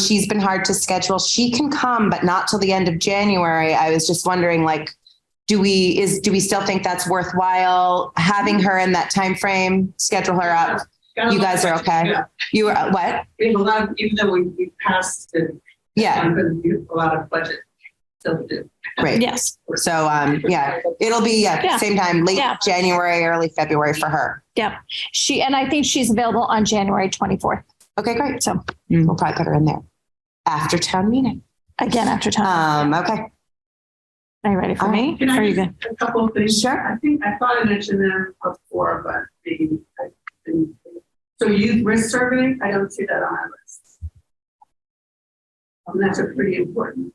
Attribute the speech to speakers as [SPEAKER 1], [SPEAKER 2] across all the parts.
[SPEAKER 1] she's been hard to schedule. She can come, but not till the end of January. I was just wondering, like, do we is do we still think that's worthwhile having her in that time frame? Schedule her up.
[SPEAKER 2] Got a
[SPEAKER 1] You
[SPEAKER 2] lot
[SPEAKER 1] guys
[SPEAKER 2] of-
[SPEAKER 1] are okay.
[SPEAKER 2] Yeah.
[SPEAKER 1] You are what?
[SPEAKER 2] We have a lot, of- even though we, we passed it.
[SPEAKER 1] Yeah,
[SPEAKER 2] We have a lot of budget. still to do.
[SPEAKER 1] great.
[SPEAKER 3] Yes,
[SPEAKER 1] So um, yeah, it'll be yeah,
[SPEAKER 3] Yeah.
[SPEAKER 1] same time, late
[SPEAKER 3] Yeah.
[SPEAKER 1] January, early February for her.
[SPEAKER 3] she, and I think she's available on January 24th.
[SPEAKER 1] Okay, great.
[SPEAKER 3] So
[SPEAKER 1] We'll probably put her in there after town meeting.
[SPEAKER 3] again, after time.
[SPEAKER 1] Um, okay. Uh,
[SPEAKER 3] Are you ready for
[SPEAKER 1] all
[SPEAKER 3] me?
[SPEAKER 2] Can
[SPEAKER 3] Are
[SPEAKER 2] I
[SPEAKER 3] you
[SPEAKER 2] just,
[SPEAKER 3] good?
[SPEAKER 2] a couple of things?
[SPEAKER 1] Sure.
[SPEAKER 2] I think, I thought I mentioned them before, but maybe. I didn't. So youth risk survey, I don't see that on our list. And that's a pretty important.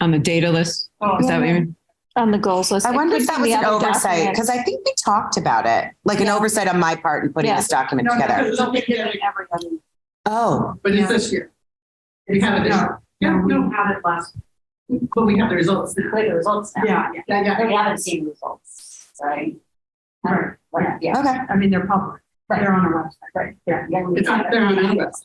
[SPEAKER 2] Oh,
[SPEAKER 4] on the data list? Is that what you mean?
[SPEAKER 3] On the goals list.
[SPEAKER 1] I wonder if
[SPEAKER 3] It could
[SPEAKER 1] that
[SPEAKER 3] be
[SPEAKER 1] was
[SPEAKER 3] the
[SPEAKER 1] an
[SPEAKER 3] other
[SPEAKER 1] oversight
[SPEAKER 3] document.
[SPEAKER 1] because I think we talked about it, like an
[SPEAKER 3] Yeah.
[SPEAKER 1] oversight on my part in putting
[SPEAKER 3] Yeah.
[SPEAKER 1] this document
[SPEAKER 2] No, no,
[SPEAKER 1] together.
[SPEAKER 2] it's not together.
[SPEAKER 1] Oh,
[SPEAKER 2] But it's this year. We have it. this year. Yeah, we don't have it last. But we have the results now.
[SPEAKER 5] Play the results now.
[SPEAKER 2] Yeah, yeah, yeah.
[SPEAKER 5] We haven't seen results, right?
[SPEAKER 2] Right.
[SPEAKER 5] Right, yeah.
[SPEAKER 1] okay.
[SPEAKER 2] I mean, they're public. They're on our website. Right. Yeah. It's on, they're on our website.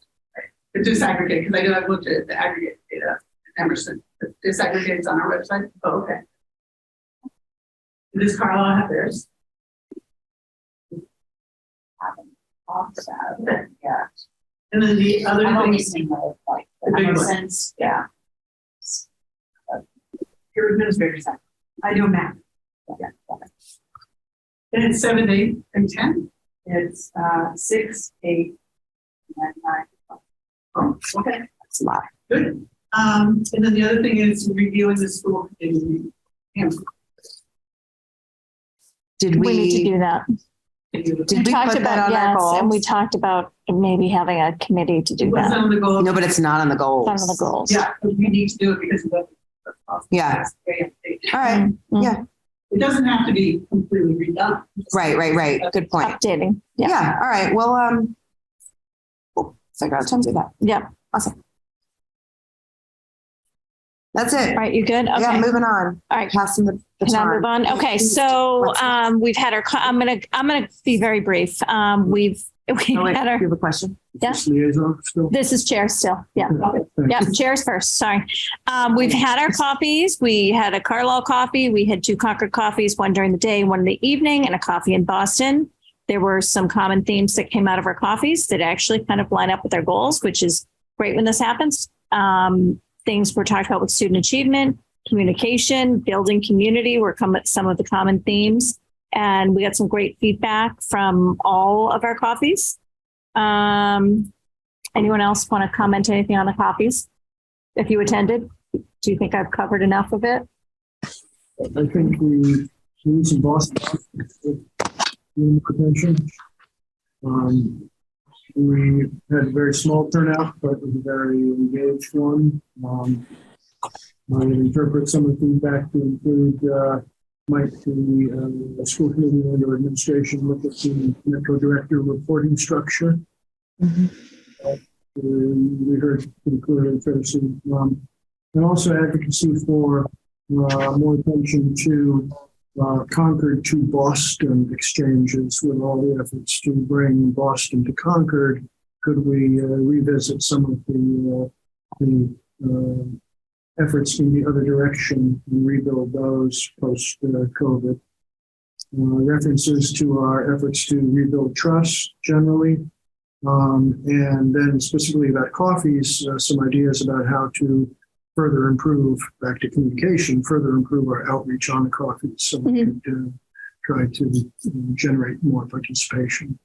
[SPEAKER 2] It's disaggregated, because I know I've looked at the aggregate data, at Emerson, The disaggregated on our website. Oh, okay. Does Carlisle have theirs?
[SPEAKER 5] Also, Yeah.
[SPEAKER 2] And then the other
[SPEAKER 5] I'm only
[SPEAKER 2] thing,
[SPEAKER 5] seeing the, like,
[SPEAKER 2] The big
[SPEAKER 5] the
[SPEAKER 2] one.
[SPEAKER 5] sense, yeah.
[SPEAKER 2] your administrators, have. I know math. And it's seven, eight, and ten? It's, uh, six, eight, and nine. Oh, okay.
[SPEAKER 1] That's a lot.
[SPEAKER 2] Good. Um, and then the other thing is reviewing the school committee.
[SPEAKER 1] Did
[SPEAKER 3] We need
[SPEAKER 1] we,
[SPEAKER 3] to do that.
[SPEAKER 2] Was
[SPEAKER 1] did we
[SPEAKER 3] talked
[SPEAKER 1] put that
[SPEAKER 3] about
[SPEAKER 1] on our
[SPEAKER 3] yes, And we
[SPEAKER 1] goals?
[SPEAKER 3] talked about maybe having a committee to do that.
[SPEAKER 2] that on the goal?
[SPEAKER 1] No, but it's not on the goals.
[SPEAKER 3] Some of the goals.
[SPEAKER 2] Yeah, but we need to do it because of the.
[SPEAKER 1] Yeah.
[SPEAKER 2] It
[SPEAKER 1] All right,
[SPEAKER 3] Mm,
[SPEAKER 1] Yeah.
[SPEAKER 2] doesn't have to be completely redone.
[SPEAKER 1] right, right, right. Good point.
[SPEAKER 3] Updating. Uh, Yeah.
[SPEAKER 1] Yeah, all right, well, um, oh, we'll figure out time to do that.
[SPEAKER 3] Yeah.
[SPEAKER 1] That's
[SPEAKER 3] All
[SPEAKER 1] it.
[SPEAKER 3] right. You good?
[SPEAKER 1] Yeah,
[SPEAKER 3] Okay.
[SPEAKER 1] moving on.
[SPEAKER 3] All right.
[SPEAKER 1] Passing the the
[SPEAKER 3] Can I move
[SPEAKER 1] baton.
[SPEAKER 3] on? Okay, so
[SPEAKER 1] What's next?
[SPEAKER 3] um, we've had our, co- I'm gonna, I'm gonna be very brief. Um, we've, we've
[SPEAKER 1] Oh, wait,
[SPEAKER 3] had our,
[SPEAKER 1] You have a question?
[SPEAKER 3] Yeah.
[SPEAKER 6] Just liaison still?
[SPEAKER 3] this is chair still, yeah.
[SPEAKER 6] Okay.
[SPEAKER 3] Yeah, chairs first, sorry. Um, we've had our coffees. We had a Carlisle coffee. We had two Concord coffees, one during the day, one in the evening, and a coffee in Boston. There were some common themes that came out of our coffees that actually kind of line up with our goals, which is great when this happens. Um, things were talked about with student achievement, communication, building community were come some of the common themes. And we got some great feedback from all of our coffees. Um, Anyone else want to comment anything on the copies? If you attended, do you think I've covered enough of it?
[SPEAKER 6] I think we lose in Boston. In potential. Um, we had a very small turnout, but it was a very engaged one. Um, I would interpret some of the feedback to include, uh, might the, uh, school committee and or administration look at the Metro Director reporting structure. Uh, We heard pretty clearly, Tracy, um, and also advocacy for uh, more attention to uh, Concord to Boston exchanges with all the efforts to bring Boston to Concord. Could we uh, revisit some of the, uh, the uh, efforts in the other direction and rebuild those post uh, COVID? Uh, references to our efforts to rebuild trust generally. Um, and then specifically about coffees, uh, some ideas about how to further improve, back to communication, further improve our outreach on the coffee so we could uh, try to um, generate more participation.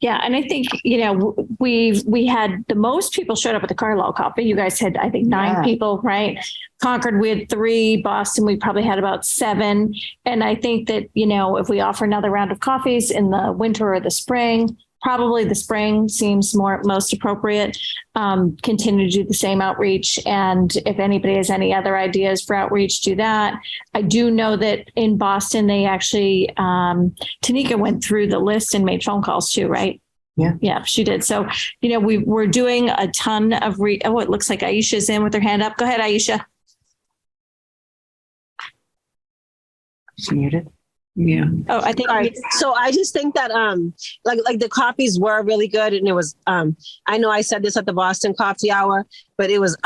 [SPEAKER 3] Yeah, and I think, you know, w- we, we had, the most people showed up at the Carlisle copy. You guys had, I think,
[SPEAKER 1] Yeah.
[SPEAKER 3] nine people, right? Concord, we had three. Boston, we probably had about seven. And I think that, you know, if we offer another round of coffees in the winter or the spring, probably the spring seems more, most appropriate. Um, continue to do the same outreach. And if anybody has any other ideas for outreach, do that. I do know that in Boston, they actually, um, Tanika went through the list and made phone calls too, right?
[SPEAKER 1] Yeah.
[SPEAKER 3] Yeah, she did. So, you know, we, we're doing a ton of re, oh, it looks like Aisha's in with her hand up. Go ahead, Aisha.
[SPEAKER 1] She's Muted.
[SPEAKER 4] Yeah.
[SPEAKER 3] Oh, I think.
[SPEAKER 7] Sorry. So I just think that um like like the copies were really good and it was um I know I said this at the Boston Coffee Hour, but it was